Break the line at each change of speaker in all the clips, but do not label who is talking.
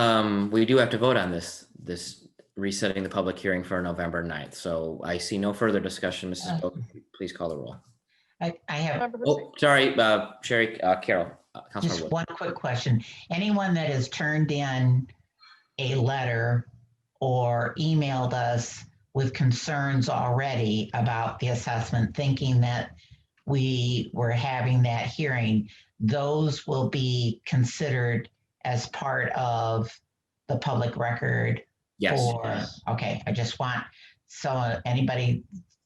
Um, we do have to vote on this, this resetting the public hearing for November 9th. So I see no further discussion. Mrs. Bogan, please call the roll.
I, I have
Member Hussein.
Oh, sorry, uh, Sherry, uh, Carol, uh, Councilmember
just
Wood.
one quick question. Anyone that has turned in a letter or emailed us with concerns already about the assessment, thinking that we were having that hearing, those will be considered as part of the public record for,
Yes.
okay, I just want, so anybody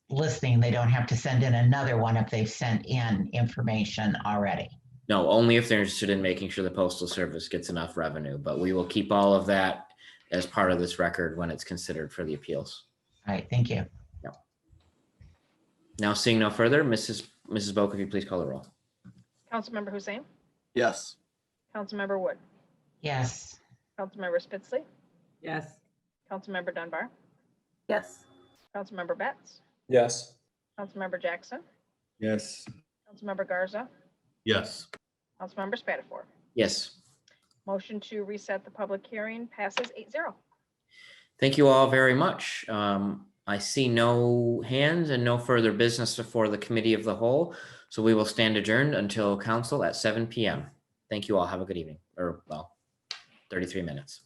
listening, they don't have to send in another one if they've sent in information already.
No, only if they're interested in making sure the postal service gets enough revenue, but we will keep all of that as part of this record when it's considered for the appeals.
All right, thank you.
Now seeing no further, Mrs. Mrs. Boak, if you please call the roll.
Councilmember Hussein,
Yes.
Councilmember Wood,
Yes,
Councilmember Spitzley,
Yes.
Councilmember Dunbar,
Yes.
Councilmember Betts,
Yes.
Councilmember Jackson,
Yes.
Councilmember Garza,
Yes.
Councilmember Spatafor.
Yes.
Motion to reset the public hearing passes 8-0.
Thank you all very much. Um, I see no hands and no further business before the committee of the whole. So we will stand adjourned until council at seven PM. Thank you all. Have a good evening or well, thirty-three minutes.